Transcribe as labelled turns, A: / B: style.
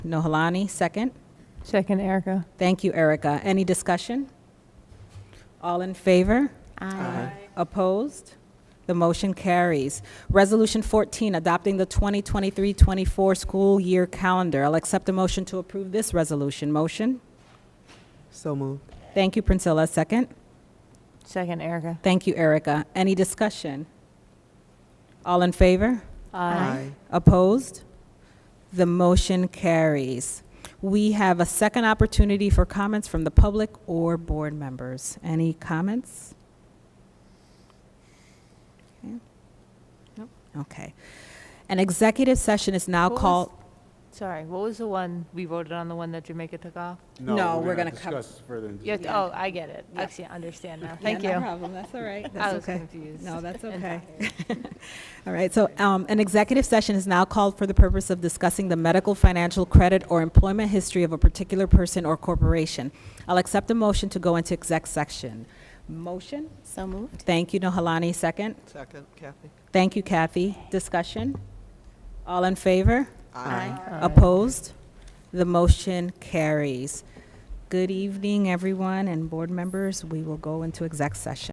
A: Nohalani, second.
B: Second, Erica.
A: Thank you, Erica. Any discussion? All in favor? Aye. Opposed? The motion carries. Resolution 14, adopting the 2023-24 school year calendar. I'll accept a motion to approve this resolution. Motion?
C: So moved.
A: Thank you, Prinsella, second.
B: Second, Erica.
A: Thank you, Erica. Any discussion? All in favor? Opposed? The motion carries. We have a second opportunity for comments from the public or board members. Any comments? Okay. Nope. Okay. An executive session is now
B: What was-
A: called.
B: Sorry, what was the one, we voted on the one that Jamaica took off?
A: No, we're gonna
D: gonna
A: cover-
D: Discuss further. in-
B: Yeah, oh, I get it. I see, I understand now. Thank
A: Yeah, No
B: you.
A: problem, that's all right.
B: I
A: That's
B: was
A: okay.
B: confused.
A: No, that's
B: and
A: okay. All right, so um, an executive session is now called for the purpose of discussing the medical, financial, credit, or employment history of a particular person or corporation. I'll accept a motion to go into exec section. Motion?
E: So moved.
A: Thank you, Nohalani, second.
C: Second, Kathy.
A: Thank you, Kathy. Discussion? All in favor?
E: Aye.
B: Um,
A: Opposed? The motion carries. Good evening, everyone, and board members. We will go into exec session.